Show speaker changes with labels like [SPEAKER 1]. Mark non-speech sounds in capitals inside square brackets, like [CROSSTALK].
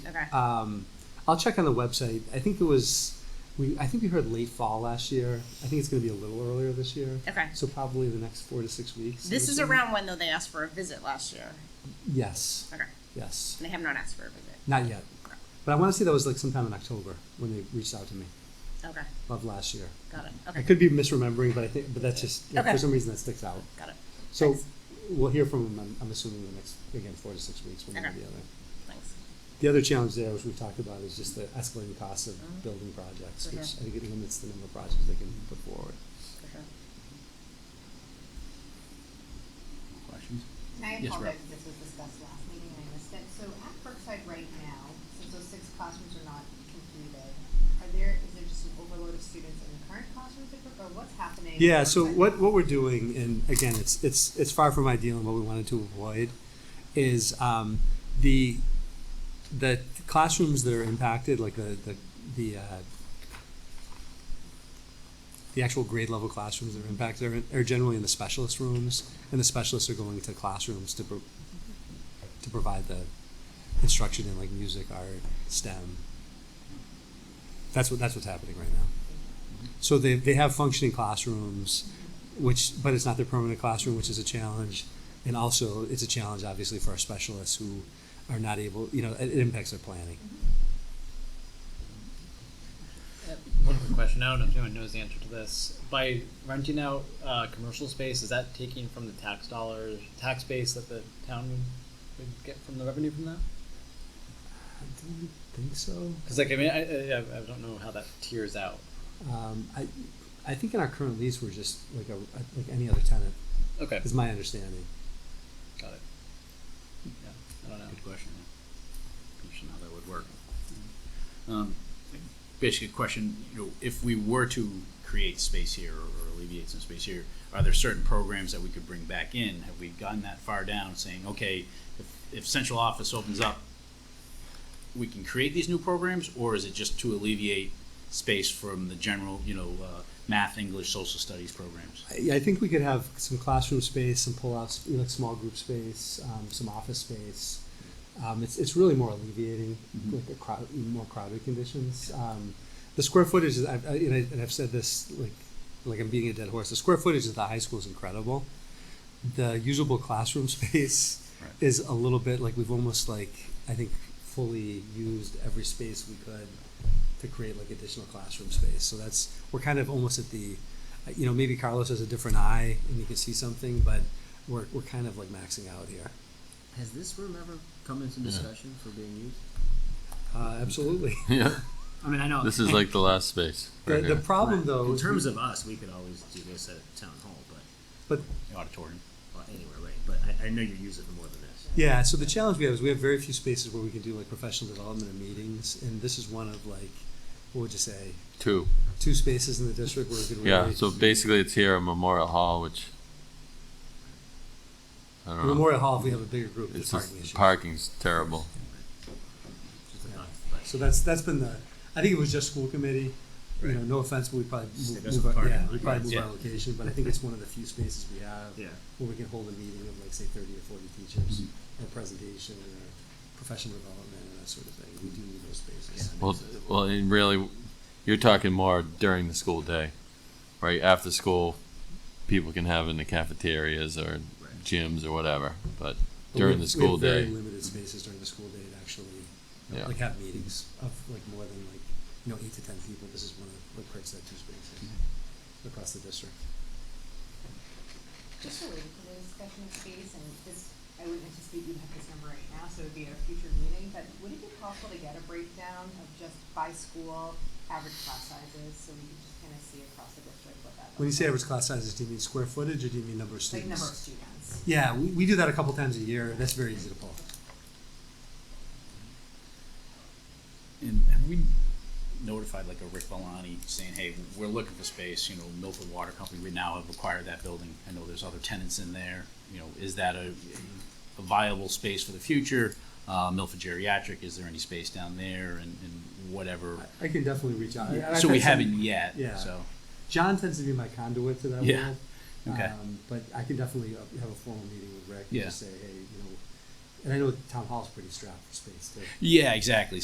[SPEAKER 1] Okay.
[SPEAKER 2] Um, I'll check on the website. I think it was we. I think we heard late fall last year. I think it's going to be a little earlier this year.
[SPEAKER 1] Okay.
[SPEAKER 2] So probably the next four to six weeks. I
[SPEAKER 1] This
[SPEAKER 2] would
[SPEAKER 1] is
[SPEAKER 2] say.
[SPEAKER 1] around when though they asked for a visit last year.
[SPEAKER 2] Yes.
[SPEAKER 1] Okay.
[SPEAKER 2] Yes.
[SPEAKER 1] And they have not asked for a visit.
[SPEAKER 2] Not yet. But I want to say that was like sometime in October when they reached out to me
[SPEAKER 1] Okay.
[SPEAKER 2] of last year.
[SPEAKER 1] Got it.
[SPEAKER 2] I
[SPEAKER 1] Okay.
[SPEAKER 2] could be misremembering, but I think but that's just
[SPEAKER 1] Okay.
[SPEAKER 2] for some reason that sticks out.
[SPEAKER 1] Got it.
[SPEAKER 2] So
[SPEAKER 1] Thanks.
[SPEAKER 2] we'll hear from them. I'm, I'm assuming the next again four to six weeks one way or
[SPEAKER 1] Okay.
[SPEAKER 2] the other.
[SPEAKER 1] Thanks.
[SPEAKER 2] The other challenge there, which we've talked about, is just the escalating costs of
[SPEAKER 1] Mhm.
[SPEAKER 2] building projects,
[SPEAKER 1] For
[SPEAKER 2] which
[SPEAKER 1] sure.
[SPEAKER 2] I think it limits the number of projects they can put forward.
[SPEAKER 1] For sure.
[SPEAKER 3] Questions?
[SPEAKER 4] And I
[SPEAKER 3] Yes, Rob.
[SPEAKER 4] apologize if this was discussed last meeting and I missed it. So at Brookside right now, since those six classrooms are not completed, are there, is there just an overload of students in the current classrooms at Brook, or what's happening? at
[SPEAKER 2] Yeah, so
[SPEAKER 4] Brookside?
[SPEAKER 2] what, what we're doing, and again, it's, it's, it's far from ideal and what we wanted to avoid, is um, the, the classrooms that are impacted, like the, the, the, uh, the actual grade level classrooms that are impacted are, in- are generally in the specialist rooms, and the specialists are going to classrooms to, pro- to provide the instruction in like music, art, STEM. That's what, that's what's happening right now. So they, they have functioning classrooms,
[SPEAKER 4] Mm-hmm.
[SPEAKER 2] which, but it's not their permanent classroom, which is a challenge. And also, it's a challenge, obviously, for our specialists who are not able, you know, it, it impacts their planning.
[SPEAKER 5] One quick question. I don't know if anyone knows the answer to this. By renting out uh, commercial space, is that taking from the tax dollars, tax base that the town would, would get from the revenue from that?
[SPEAKER 2] I don't think so.
[SPEAKER 5] Because like I mean, I, I, I don't know how that tiers out.
[SPEAKER 2] Um, I, I think in our current lease, we're just like a, like any other tenant,
[SPEAKER 5] Okay,
[SPEAKER 2] is my understanding.
[SPEAKER 5] got it. Yeah, I don't know.
[SPEAKER 3] Good question. yeah. Question how that would work.
[SPEAKER 6] Mm-hmm.
[SPEAKER 3] Um, basically, a question, you know, if we were to create space here or alleviate some space here, are there certain programs that we could bring back in? Have we gotten that far down, saying, okay, if, if central office opens up, we can create these new programs, or is it just to alleviate space from the general, you know, uh, math, English, social studies programs?
[SPEAKER 2] I, I think we could have some classroom space, some pull-outs, you know, like small group space, um, some office space. Um, it's, it's really more alleviating
[SPEAKER 3] Mhm.
[SPEAKER 2] like the crowd, more crowded conditions. Um, the square footage is, I've, I, and, I, and I've said this like like I'm beating a dead horse. The square footage of the high school is incredible. The usable classroom [LAUGHS] space
[SPEAKER 3] Right.
[SPEAKER 2] is a little bit like we've almost like I think fully used every space we could to create like additional classroom space. So that's we're kind of almost at the you know maybe Carlos has a different eye and he can see something, but we're we're kind of like maxing out here.
[SPEAKER 6] Has this room ever come into discussion for being used?
[SPEAKER 2] Uh, absolutely.
[SPEAKER 7] [LAUGHS] Yeah,
[SPEAKER 6] I mean, I know.
[SPEAKER 7] this is like the last space.
[SPEAKER 2] The,
[SPEAKER 7] right
[SPEAKER 2] the
[SPEAKER 7] here.
[SPEAKER 2] problem though
[SPEAKER 6] in
[SPEAKER 2] is
[SPEAKER 6] terms of us, we could always do this at town hall, but
[SPEAKER 2] but
[SPEAKER 3] The Auditorium.
[SPEAKER 6] well, anywhere, right? But I, I know you use it for more than this.
[SPEAKER 2] Yeah, so the challenge we have is we have very few spaces where we can do like professional development and meetings, and this is one of like, what would you say,
[SPEAKER 7] two.
[SPEAKER 2] two spaces in the district where we could really.
[SPEAKER 7] Yeah, so basically it's here at Memorial Hall, which I don't know.
[SPEAKER 2] Memorial Hall, if we have a bigger group, there's
[SPEAKER 7] uh, It's
[SPEAKER 2] parking
[SPEAKER 7] just
[SPEAKER 2] issues.
[SPEAKER 7] parking's terrible.
[SPEAKER 6] Just a
[SPEAKER 2] Yeah.
[SPEAKER 6] thought, but
[SPEAKER 2] So that's, that's been the, I think it was just school committee, you know, no offense, but we probably
[SPEAKER 6] Stick
[SPEAKER 2] move,
[SPEAKER 6] us
[SPEAKER 2] move
[SPEAKER 6] with
[SPEAKER 2] our,
[SPEAKER 6] parking
[SPEAKER 2] yeah, we
[SPEAKER 6] lots.
[SPEAKER 2] probably move
[SPEAKER 3] Yeah.
[SPEAKER 2] our location, but I think it's one of the few spaces we have.
[SPEAKER 6] Yeah.
[SPEAKER 2] Where we can hold a meeting of like, say, thirty or forty teachers,
[SPEAKER 6] Mm-hmm.
[SPEAKER 2] or presentation, or professional development, and that sort of thing, we do need those spaces.
[SPEAKER 7] Well, well, and really, you're talking more during the school day, right? After school, people can have in the cafeterias or
[SPEAKER 6] Right.
[SPEAKER 7] gyms or whatever,
[SPEAKER 2] But
[SPEAKER 7] but
[SPEAKER 2] we
[SPEAKER 7] during
[SPEAKER 2] have-
[SPEAKER 7] the school
[SPEAKER 2] we have
[SPEAKER 7] day,
[SPEAKER 2] Very limited spaces during the school day to actually, you know,
[SPEAKER 7] Yeah.
[SPEAKER 2] like have meetings of like more than like, you know, eight to ten people. This is one of like Craig said, two spaces
[SPEAKER 6] Mm-hmm.
[SPEAKER 2] across the district.
[SPEAKER 4] Just related to the discussion of space, and this, I wouldn't anticipate you'd have this number right now, so it'd be at a future meeting, but would it be possible to get a breakdown of just by school, average class sizes, so we could just kind of see across the district what that looks like?
[SPEAKER 2] When you say average class sizes, do you mean square footage or do you mean number of
[SPEAKER 4] Like
[SPEAKER 2] students?
[SPEAKER 4] number of students.
[SPEAKER 2] Yeah, we, we do that a couple times a year. That's very easy to pull.
[SPEAKER 3] And have we notified like a Rick Valani saying, hey, we're looking for space, you know, Milford Water Company, we now have acquired that building. I know there's other tenants in there, you know, is that a, a viable space for the future? Uh, Milford Geriatric, is there any space down there and, and whatever?
[SPEAKER 2] I can definitely reach out. And I've
[SPEAKER 3] So we
[SPEAKER 2] had some-
[SPEAKER 3] haven't yet,
[SPEAKER 2] yeah.
[SPEAKER 3] so,
[SPEAKER 2] John tends to be my conduit to that
[SPEAKER 3] Yeah,
[SPEAKER 2] world.
[SPEAKER 3] okay.
[SPEAKER 2] Um, but I can definitely uh, have a formal meeting with Rick
[SPEAKER 3] Yeah.
[SPEAKER 2] and just say, hey, you know, and I know town hall's pretty strapped for space too.
[SPEAKER 3] yeah, exactly.